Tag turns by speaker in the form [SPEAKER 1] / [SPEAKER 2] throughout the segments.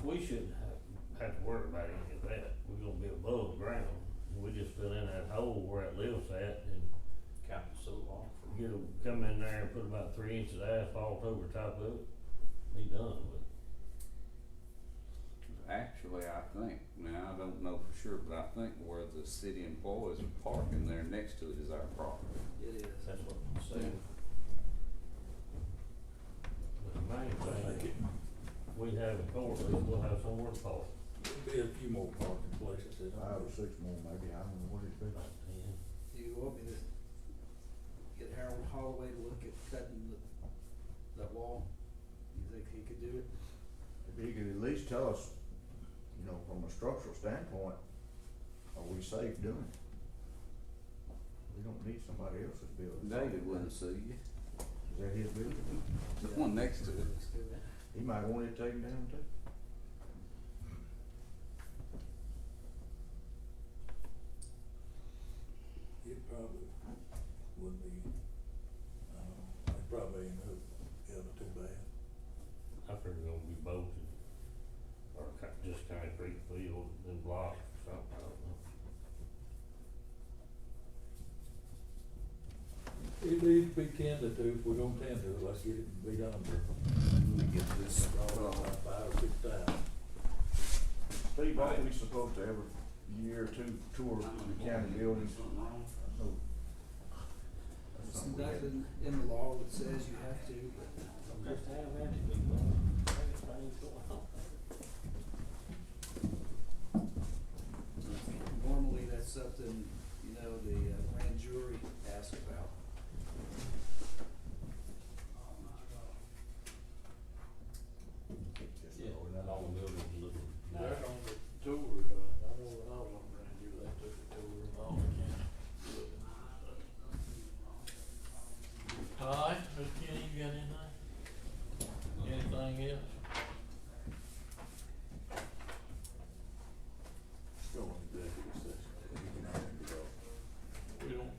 [SPEAKER 1] we shouldn't have, have to worry about any of that, we're gonna be above ground, we just fill in that hole where it lives at and
[SPEAKER 2] Cap it so long.
[SPEAKER 1] get them, come in there and put about three inches of asphalt over top of it, be done with it.
[SPEAKER 3] Actually, I think, now I don't know for sure, but I think where the city employees are parking there next to it is our property.
[SPEAKER 2] It is.
[SPEAKER 1] That's what I'm saying. But the main thing, we have a court, we'll have somewhere to park,
[SPEAKER 4] There'll be a few more parking places that
[SPEAKER 5] five or six more maybe, I don't know what it's been.
[SPEAKER 1] about ten.
[SPEAKER 2] You want me to get Harold Holloway to look at cutting the, that wall? You think he could do it?
[SPEAKER 5] If you could at least tell us, you know, from a structural standpoint, are we safe doing it? We don't need somebody else's building.
[SPEAKER 3] David wouldn't sue you,
[SPEAKER 5] Is that his building?
[SPEAKER 3] the one next to it.
[SPEAKER 2] Let's do that.
[SPEAKER 5] He might want it taken down too.
[SPEAKER 4] it probably would be, I don't know, it probably ain't hooked, you know, too bad.
[SPEAKER 1] I figure it's gonna be bolted, or co- just concrete field and block or something, I don't know.
[SPEAKER 4] It needs to be tended to, if we're gonna tend to, it, let's get it and be done with.
[SPEAKER 3] Let me get this, uh,
[SPEAKER 4] All about five or six times.
[SPEAKER 5] Steve, aren't we supposed to every year or two tour the county buildings? No.
[SPEAKER 2] There's
[SPEAKER 5] That's something we had.
[SPEAKER 2] nothing in the law that says you have to, but
[SPEAKER 1] Just have that to be bolted, everything's going on.
[SPEAKER 2] normally that's something, you know, the uh, grand jury asks about.
[SPEAKER 5] Just
[SPEAKER 6] Yeah,
[SPEAKER 5] throw it out.
[SPEAKER 6] all the buildings looking
[SPEAKER 7] They're
[SPEAKER 6] nice.
[SPEAKER 7] on the tour, uh, I know when I was on Grand View, they took the tour of all the county. All right, Mr. Kenny, you got anything? Anything else?
[SPEAKER 5] Just go in executive session, you can have it go.
[SPEAKER 7] We don't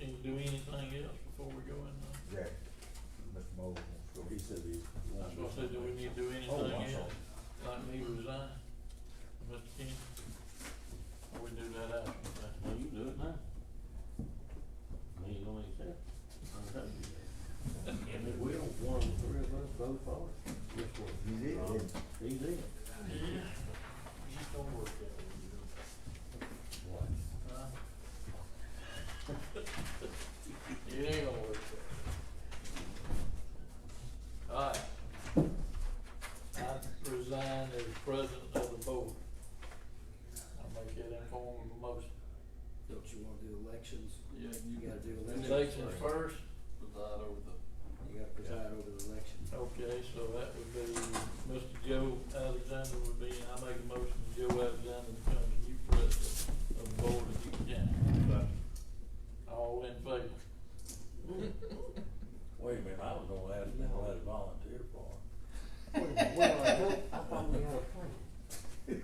[SPEAKER 7] need to do anything else before we go in uh, there?
[SPEAKER 5] Jack, Mr. Moore wants to go.
[SPEAKER 4] He said he.
[SPEAKER 7] That's what I said, do we need to do
[SPEAKER 5] Oh, I'm
[SPEAKER 7] anything else?
[SPEAKER 5] sorry.
[SPEAKER 7] Like me resign, Mr. Kenny? Or we do that after? that?
[SPEAKER 1] Well, you do it now. Me and only accept. I'm telling you that. And if we don't, one of the three of us vote for it, just for
[SPEAKER 5] He did, didn't he?
[SPEAKER 1] He's in.
[SPEAKER 7] Yeah, just don't work that way, you know.
[SPEAKER 1] What?
[SPEAKER 7] Huh? It ain't gonna work that way. Alright. I resign as president of the board. I'll make that in form of a motion.
[SPEAKER 2] Don't you wanna do elections?
[SPEAKER 6] Yeah,
[SPEAKER 2] You gotta do
[SPEAKER 6] And
[SPEAKER 2] elections.
[SPEAKER 6] then
[SPEAKER 7] Elections first,
[SPEAKER 6] Preside over the
[SPEAKER 2] You gotta preside over the election.
[SPEAKER 7] Oh. okay, so that would be Mr. Joe Alexander would be, I make a motion, Joe Alexander becomes the new president of the board of Duke County. All in favor?
[SPEAKER 4] Wait a minute, I was gonna ask him to let it volunteer for it.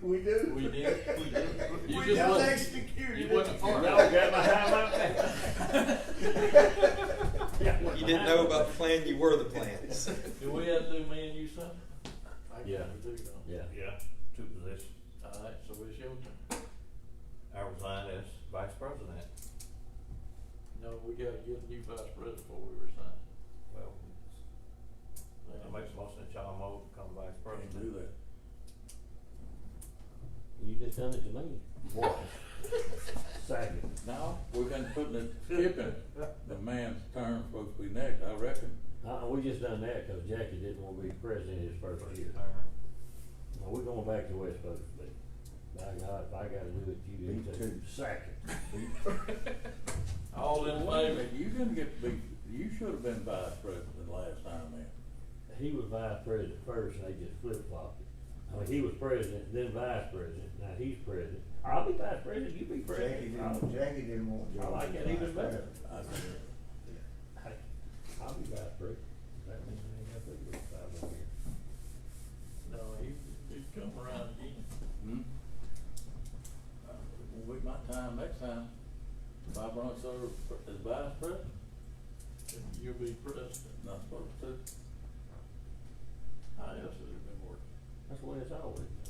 [SPEAKER 5] We do.
[SPEAKER 7] We did, we did. You
[SPEAKER 5] We
[SPEAKER 7] just
[SPEAKER 5] just
[SPEAKER 7] wasn't-
[SPEAKER 5] executed.
[SPEAKER 7] You
[SPEAKER 5] it.
[SPEAKER 7] wasn't part of
[SPEAKER 1] Y'all
[SPEAKER 7] it.
[SPEAKER 1] got my high out there.
[SPEAKER 8] You didn't know about the plan, you were the plan.
[SPEAKER 7] Do we have to do me and you something? I
[SPEAKER 1] Yeah.
[SPEAKER 7] can't do that.
[SPEAKER 1] Yeah. Yeah, two positions.
[SPEAKER 7] Alright, so it's your turn.
[SPEAKER 6] I resigned as vice president.
[SPEAKER 7] No, we gotta get a new vice president before we resign.
[SPEAKER 6] Well, I make a motion that John Moe become vice
[SPEAKER 4] Can't
[SPEAKER 6] president.
[SPEAKER 4] do that.
[SPEAKER 1] You just done it to me.
[SPEAKER 4] Boy.
[SPEAKER 1] Second.
[SPEAKER 4] Now, we're gonna put the chip in, the man's term's supposed to be next, I reckon.
[SPEAKER 1] Uh, we just done that because Jackie didn't want to be president his first year. Now, we're going back to where it's supposed to be. By God, if I gotta do it, you
[SPEAKER 5] Me
[SPEAKER 1] do it too.
[SPEAKER 5] too.
[SPEAKER 1] Second.
[SPEAKER 7] All in
[SPEAKER 4] Wait a
[SPEAKER 7] favor?
[SPEAKER 4] minute, you didn't get to be, you should have been vice president last time then.
[SPEAKER 1] He was vice president first, and they just flip flopped it. I mean, he was president, then vice president, now he's president. I'll be vice president, you be
[SPEAKER 5] Jackie
[SPEAKER 1] president.
[SPEAKER 5] didn't,
[SPEAKER 1] I'll-
[SPEAKER 5] Jackie didn't want Joe.
[SPEAKER 1] I like
[SPEAKER 5] to
[SPEAKER 1] it
[SPEAKER 5] be
[SPEAKER 1] even
[SPEAKER 5] vice
[SPEAKER 1] better.
[SPEAKER 5] president.
[SPEAKER 4] I said,
[SPEAKER 1] Hey, I'll be vice president. That means I ain't got to be vice president.
[SPEAKER 7] No, he, he's come around again.
[SPEAKER 4] hmm? Uh, Will be my time next time, if I run for, as vice president,
[SPEAKER 7] You'll be president.
[SPEAKER 4] not supposed to.
[SPEAKER 7] How else has it been working?
[SPEAKER 1] That's the way it's always been.